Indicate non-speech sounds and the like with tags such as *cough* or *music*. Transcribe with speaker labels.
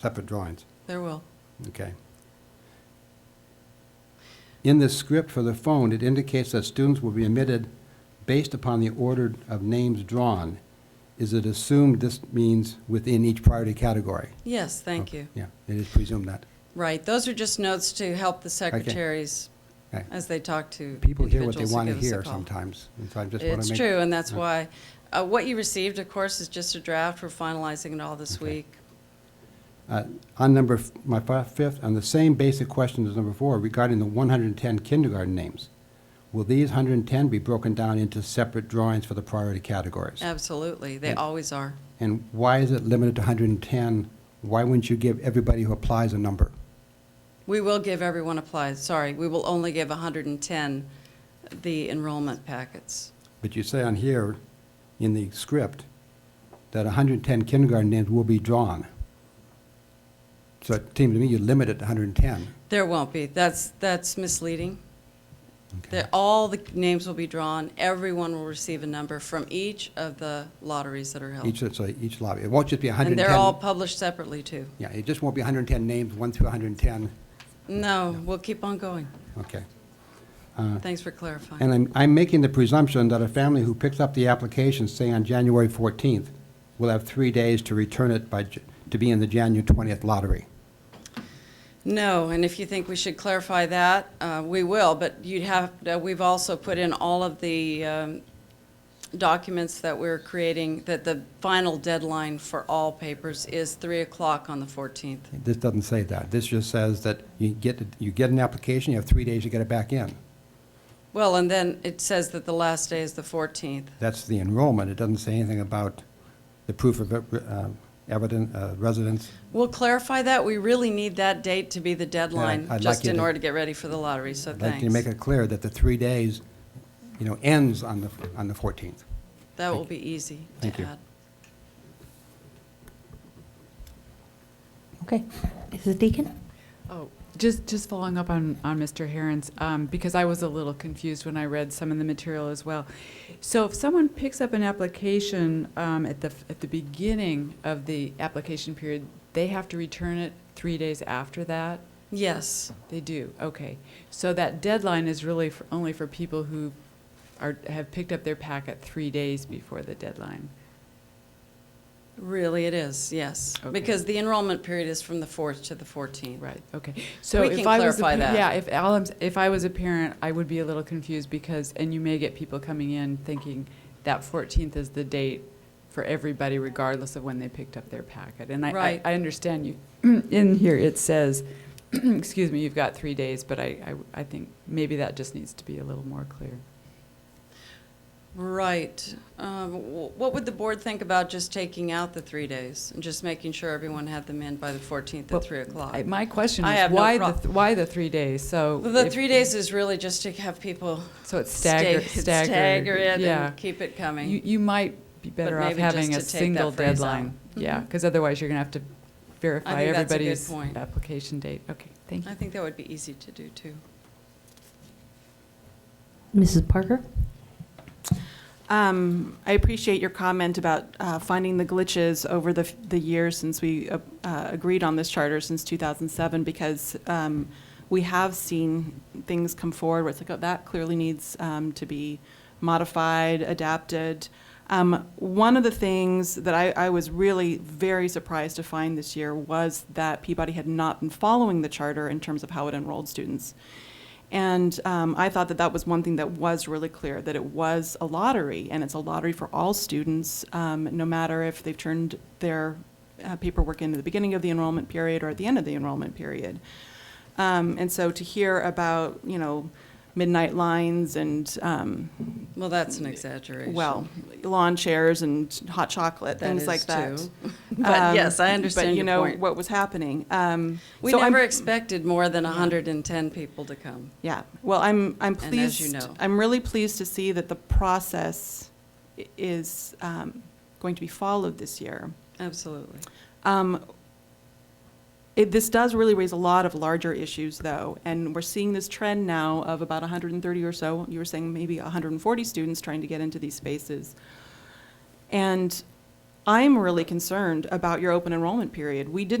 Speaker 1: separate drawings,
Speaker 2: There will.
Speaker 1: okay? In the script for the phone, it indicates that students will be admitted based upon the order of names drawn. Is it assumed this means within each priority category?
Speaker 2: Yes, thank you.
Speaker 1: Yeah, it is presumed that.
Speaker 2: Right, those are just notes to help the secretaries
Speaker 1: Okay.
Speaker 2: as they talk to
Speaker 1: People hear what they
Speaker 2: Uh, individuals who
Speaker 1: want to
Speaker 2: give us a
Speaker 1: hear
Speaker 2: call.
Speaker 1: sometimes, and so I just want to make.
Speaker 2: It's true, and that's
Speaker 1: Yeah.
Speaker 2: why, uh, what you received, of course, is just a draft. We're finalizing it all this
Speaker 1: Okay.
Speaker 2: week.
Speaker 1: Uh, On number, f- my fi- fifth, on the same basic question as number four regarding the 110 kindergarten names, will these 110 be broken down into separate drawings for the priority categories?
Speaker 2: Absolutely, they
Speaker 1: And-
Speaker 2: always are.
Speaker 1: And why is it limited to 110? Why wouldn't you give everybody who applies a number?
Speaker 2: We will give everyone applies, sorry, we will only give 110 the enrollment packets.
Speaker 1: But you say on here, in the script, that 110 kindergarten names will be drawn. So it seems to me you limit it to 110.
Speaker 2: There won't be, that's, that's misleading.
Speaker 1: Okay.
Speaker 2: That all the names will be drawn, everyone will receive a number from each of the lotteries that are held.
Speaker 1: Each, so each lobby, it won't just be 110.
Speaker 2: And they're all published separately, too.
Speaker 1: Yeah, it just won't be 110 names, 1 through 110.
Speaker 2: No, we'll keep on going.
Speaker 1: Okay.
Speaker 2: Thanks for clarifying.
Speaker 1: And I'm, I'm making the presumption that a family who picks up the application, say on January 14th, will have three days to return it by, J- to be in the January 20th lottery.
Speaker 2: No, and if you think we should clarify that, uh, we will, but you'd have, uh, we've also put in all of the um, documents that we're creating, that the final deadline for all papers is 3 o'clock on the 14th.
Speaker 1: This doesn't say that. This just says that you get, it- you get an application, you have three days to get it back in.
Speaker 2: Well, and then it says that the last day is the 14th.
Speaker 1: That's the enrollment. It doesn't say anything about the proof of uh, evidence, uh, residence.
Speaker 2: We'll clarify that. We really need that date to be the deadline,
Speaker 1: I'd like
Speaker 2: just
Speaker 1: you
Speaker 2: in
Speaker 1: to-
Speaker 2: order to get ready for the lottery, so
Speaker 1: I'd
Speaker 2: thanks.
Speaker 1: like you to make it clear that the three days, you know, ends on the, on the 14th.
Speaker 2: That will be easy to
Speaker 1: Thank you.
Speaker 2: add.
Speaker 3: Okay. Mrs. Deacon?
Speaker 4: Oh, just, just following up on, on Mr. Herons, um, because I was a little confused when I read some of the material as well. So if someone picks up an application, um, at the, f- at the beginning of the application period, they have to return it three days after that?
Speaker 2: Yes,
Speaker 4: They do, okay. So that deadline is really for, only for people who are, have picked up their packet three days before the deadline?
Speaker 2: really it is, yes.
Speaker 4: Okay.
Speaker 2: Because the enrollment period is from the 4th to the 14th.
Speaker 4: Right, okay. So
Speaker 2: We
Speaker 4: if
Speaker 2: can
Speaker 4: I was a
Speaker 2: clarify
Speaker 4: pa-
Speaker 2: that.
Speaker 4: Yeah, if all I'm s- if I was a parent, I would be a little confused because, and you may get people coming in thinking that fourteenth is the date for everybody regardless of when they picked up their packet. And I- I,
Speaker 2: Right.
Speaker 4: I understand you, *clears throat* in here it says, *clears throat* excuse me, you've got three days, but I, I, I think maybe that just needs to be a little more clear.
Speaker 2: Right. Um, wh- What would the board think about just taking out the three days and just making sure everyone had them in by the 14th
Speaker 4: Well,
Speaker 2: at 3 o'clock?
Speaker 4: I- My question
Speaker 2: I
Speaker 4: is,
Speaker 2: have no
Speaker 4: why the,
Speaker 2: prob-
Speaker 4: th- why the three days? So.
Speaker 2: Well, The
Speaker 4: if-
Speaker 2: three days is really just to have people
Speaker 4: So it's
Speaker 2: stagger
Speaker 4: *laughs* staggered, staggered.
Speaker 2: stagger it
Speaker 4: Yeah.
Speaker 2: and keep it coming.
Speaker 4: You, you might be better off
Speaker 2: maybe just
Speaker 4: having
Speaker 2: to
Speaker 4: a
Speaker 2: take that
Speaker 4: single
Speaker 2: phrase out.
Speaker 4: deadline. Yeah,
Speaker 2: Mhm.
Speaker 4: because otherwise you're going to have to verify
Speaker 2: think that's a good
Speaker 4: everybody's
Speaker 2: point.
Speaker 4: application date. Okay, thank
Speaker 2: I
Speaker 4: you.
Speaker 2: think that would be easy to do, too.
Speaker 3: Mrs. Parker?
Speaker 5: Um, I appreciate your comment about uh, finding the glitches over the, the years since we uh, uh, agreed on this charter since 2007, because um, we have seen things come forward where it's like, oh, that clearly needs um, to be modified, adapted. Um, One of the things that I, I was really very surprised to find this year was that Peabody had not been following the charter in terms of how it enrolled students. And um, I thought that that was one thing that was really clear that it was a lottery, and it's a lottery for all students, um, no matter if they've turned their uh, paperwork in at the beginning of the enrollment period or at the end of the enrollment period. Um, and so to hear about, you know, midnight lines and, um,
Speaker 2: Well, that's an exaggeration.
Speaker 5: well, lawn chairs and hot chocolate,
Speaker 2: That
Speaker 5: things
Speaker 2: is
Speaker 5: like that. *laughs*
Speaker 2: too. But
Speaker 5: Um,
Speaker 2: yes, I understand
Speaker 5: But you
Speaker 2: your
Speaker 5: know
Speaker 2: point.
Speaker 5: what was happening. Um,
Speaker 2: We
Speaker 5: so I'm-
Speaker 2: never expected more than 110 people to come.
Speaker 5: Yeah, well, I'm, I'm
Speaker 2: And as you
Speaker 5: pleased,
Speaker 2: know.
Speaker 5: I'm really pleased to see that the process i- is um, going to be followed this year.
Speaker 2: Absolutely.
Speaker 5: Um, it- This does really raise a lot of larger issues, though, and we're seeing this trend now of about 130 or so, you were saying maybe 140 students trying to get into these spaces. And I'm really concerned about your open enrollment period. We didn't